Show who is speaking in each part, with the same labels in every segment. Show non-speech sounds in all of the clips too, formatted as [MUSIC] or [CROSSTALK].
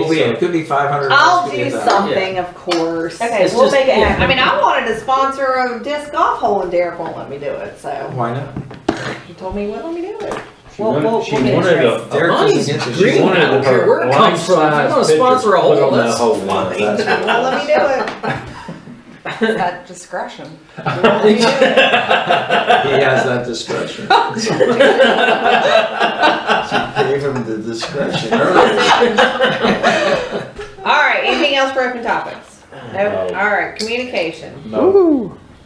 Speaker 1: We'll be,
Speaker 2: so-
Speaker 1: it could be five hundred.
Speaker 3: I'll do something, of course.
Speaker 4: Okay,
Speaker 2: It's
Speaker 4: we'll
Speaker 2: just-
Speaker 4: make it
Speaker 2: yeah,
Speaker 4: happen.
Speaker 3: I mean, I wanted to sponsor a disc golf hole and Derek won't let me do it, so
Speaker 1: Why not?
Speaker 3: he told me he wouldn't let me do it.
Speaker 4: We'll-
Speaker 2: wanted-
Speaker 4: we'll-
Speaker 2: she
Speaker 4: we'll get
Speaker 2: wanted
Speaker 4: it
Speaker 2: a- a
Speaker 1: Derek
Speaker 2: money's
Speaker 1: doesn't get this.
Speaker 2: green.
Speaker 1: She
Speaker 2: I
Speaker 5: wanted
Speaker 2: don't care
Speaker 5: her
Speaker 2: where it comes from. If you're
Speaker 5: life-size
Speaker 2: gonna sponsor a
Speaker 5: picture put
Speaker 2: hole,
Speaker 5: on that
Speaker 2: that's
Speaker 5: whole wall,
Speaker 2: fine.
Speaker 5: that's what it
Speaker 3: Won't let me do it.
Speaker 4: At
Speaker 3: [LAUGHS]
Speaker 4: discretion.
Speaker 1: He has that
Speaker 3: [LAUGHS]
Speaker 1: discretion. She gave him the discretion earlier.
Speaker 3: All right, anything else for open topics? No.
Speaker 5: No.
Speaker 3: All right, communication,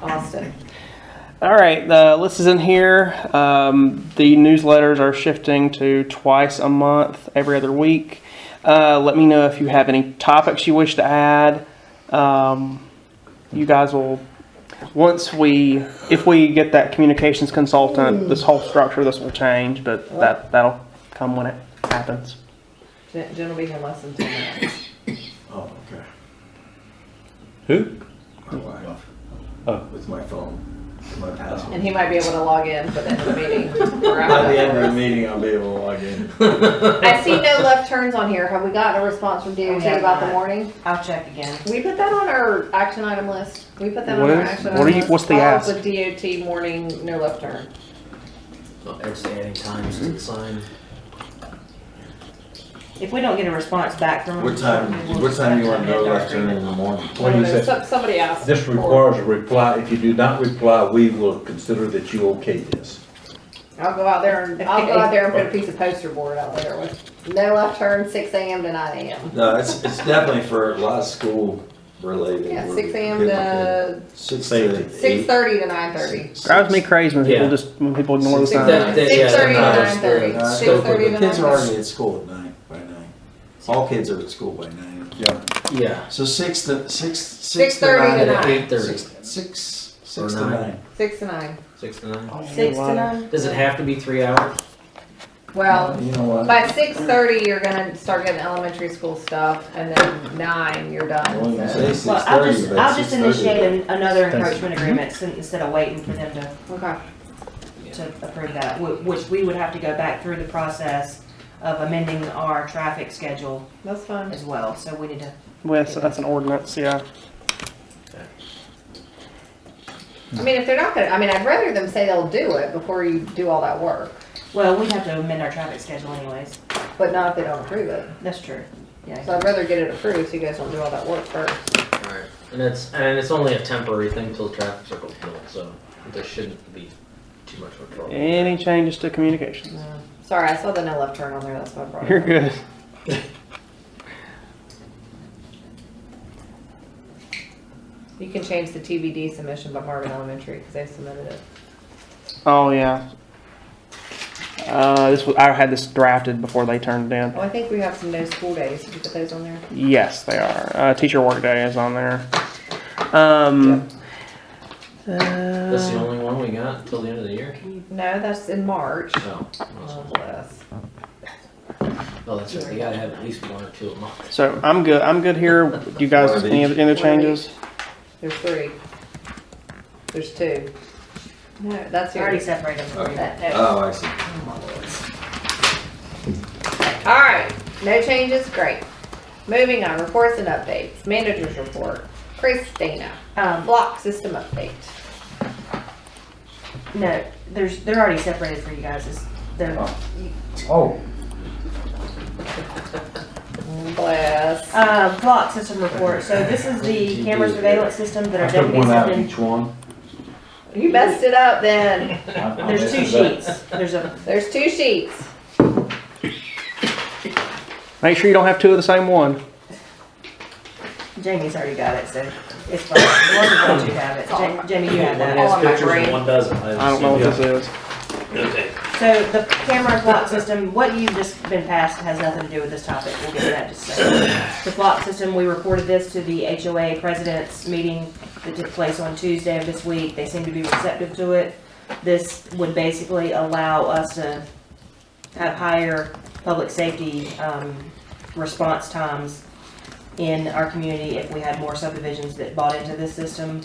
Speaker 3: Austin.
Speaker 6: All right, the list is in here. Um, the newsletters are shifting to twice a month, every other week. Uh, let me know if you have any topics you wish to add. Um, you guys will, once we, if we get that communications consultant, this whole structure, this will change, but that, that'll come when it happens.
Speaker 3: Jen Jen will be here less than ten minutes.
Speaker 1: Oh, okay.
Speaker 5: Who?
Speaker 1: My wife.
Speaker 5: Oh.
Speaker 1: With my phone, my password.
Speaker 3: And he might be able to log in for the end of the meeting. or
Speaker 1: By
Speaker 3: out of
Speaker 1: the end of
Speaker 3: it.
Speaker 1: the meeting, I'll be able to log in.
Speaker 3: I see no left turns on here. Have we gotten a response from DOT
Speaker 4: have
Speaker 3: about the
Speaker 4: not.
Speaker 3: warning?
Speaker 4: I'll check again.
Speaker 3: We put that on our action item list. We put that on
Speaker 6: What
Speaker 3: our
Speaker 6: is-
Speaker 3: action
Speaker 6: what
Speaker 3: item
Speaker 6: are you-
Speaker 3: list.
Speaker 6: what's the
Speaker 3: Follow up
Speaker 6: ask?
Speaker 3: With DOT warning, no left turn.
Speaker 2: It's adding times to the sign.
Speaker 4: If we don't get a response back from.
Speaker 1: What time, what time you wanna go left turn in the morning?
Speaker 5: What do you say?
Speaker 3: Some- Somebody asked.
Speaker 5: This
Speaker 3: for-
Speaker 5: requires a reply. If you do not reply, we will consider that you okay this.
Speaker 3: I'll go out there and, I'll go out there and put a piece of poster board out there with no left turn, six AM to nine AM.
Speaker 1: No, it's, it's definitely for a lot of school related.
Speaker 3: Yeah, six AM to,
Speaker 1: Six
Speaker 5: Safety.
Speaker 1: to.
Speaker 3: six thirty to nine thirty.
Speaker 6: Drives me crazy when people
Speaker 2: Yeah.
Speaker 6: just, when people ignore the
Speaker 1: Six-
Speaker 6: sign.
Speaker 1: That- that-
Speaker 3: Six thirty to
Speaker 1: yeah,
Speaker 3: nine thirty.
Speaker 1: Uh,
Speaker 3: Six thirty to nine
Speaker 1: Kids are already
Speaker 3: thirty.
Speaker 1: at school at nine, by nine. All kids are at school by nine.
Speaker 5: Yeah.
Speaker 2: Yeah.
Speaker 1: So six to, six, six
Speaker 3: Six
Speaker 1: to
Speaker 3: thirty to
Speaker 1: nine.
Speaker 3: nine.
Speaker 2: Eight thirty.
Speaker 1: Six- Six, six to
Speaker 2: nine.
Speaker 1: nine.
Speaker 3: Six to nine.
Speaker 2: Six to nine.
Speaker 4: Six to nine?
Speaker 2: Does it have to be three hours?
Speaker 3: Well,
Speaker 1: You know what?
Speaker 3: by six thirty, you're gonna start getting elementary school stuff and then nine, you're
Speaker 1: I wouldn't
Speaker 3: done.
Speaker 1: say
Speaker 3: so.
Speaker 4: Well, I'll
Speaker 1: 6:30,
Speaker 4: just,
Speaker 1: but
Speaker 4: I'll just
Speaker 1: 6:30.
Speaker 4: initiate an- another encroachment agreement sin- instead of waiting for them to,
Speaker 3: Okay.
Speaker 4: to approve that, wh- which we would have to go back through the process of amending our traffic schedule
Speaker 3: That's fine.
Speaker 4: as well, so we need to.
Speaker 6: Well, that's- that's an ordinance, yeah.
Speaker 3: I mean, if they're not gonna, I mean, I'd rather them say they'll do it before you do all that work,
Speaker 4: Well, we have to amend our traffic schedule anyways,
Speaker 3: but not if they don't approve it.
Speaker 4: that's true, yeah.
Speaker 3: So I'd rather get it approved so you guys don't do all that work first.
Speaker 2: Alright. And it's, and it's only a temporary thing till the traffic circle's built, so there shouldn't be too much of a trouble.
Speaker 6: Any changes to communications?
Speaker 3: No. Sorry, I saw the no left turn on there, that's why I brought
Speaker 6: You're
Speaker 3: it up.
Speaker 6: good.
Speaker 3: You can change the TBD submission by Marvin Elementary, because they submitted it.
Speaker 6: Oh yeah. Uh, this was I had this drafted before they turned it in.
Speaker 3: Oh, I think we have some no school days, did you put those on there?
Speaker 6: Yes, they are. Uh, teacher work day is on there. Um,
Speaker 2: That's the
Speaker 6: uh,
Speaker 2: only one we got until the end of the year?
Speaker 3: No, that's in March.
Speaker 2: No.
Speaker 3: Oh, bless.
Speaker 2: Oh, that's right. You gotta have at least one or two a month.
Speaker 6: so I'm good. I'm good here. Do you guys any other, any other changes?
Speaker 3: There's three. There's two. No, that's
Speaker 4: We Already
Speaker 3: yours.
Speaker 4: separated them.
Speaker 1: Okay.
Speaker 3: That- no.
Speaker 1: Oh, I see.
Speaker 3: All right, no changes, great. Moving on, reports and updates, managers report, Christina,
Speaker 4: Um,
Speaker 3: block system update.
Speaker 4: no, there's, they're already separated for you guys, it's, they're,
Speaker 1: Oh.
Speaker 3: Bless.
Speaker 4: Um, block system report, so this is the camera surveillance system that
Speaker 5: I
Speaker 4: our
Speaker 5: took
Speaker 4: deputies
Speaker 5: one
Speaker 4: have
Speaker 5: out of
Speaker 4: been,
Speaker 5: each one.
Speaker 3: You messed it up then.
Speaker 4: there's two sheets, there's a,
Speaker 3: There's two sheets.
Speaker 6: Make sure you don't have two of the same one.
Speaker 4: Jamie's already got it, so it's fine, one of us you have it, Ja- Jamie, you have that.
Speaker 3: has All in my pictures and brain.
Speaker 7: one doesn't.
Speaker 6: I don't know what this is.
Speaker 4: So the camera block system, what you've just been passed has nothing to do with this topic, we'll get to that in just a second. The block system, we reported this to the HOA president's meeting that took place on Tuesday of this week, they seem to be receptive to it. This would basically allow us to have higher public safety, um, response times in our community if we had more subdivisions that bought into this system.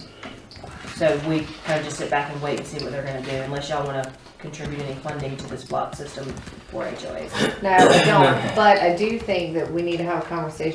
Speaker 4: So we kind of just sit back and wait and see what they're gonna do, unless y'all wanna contribute any funding to this block system for HOAs.
Speaker 3: No, we don't, but I do think that we need to have a conversation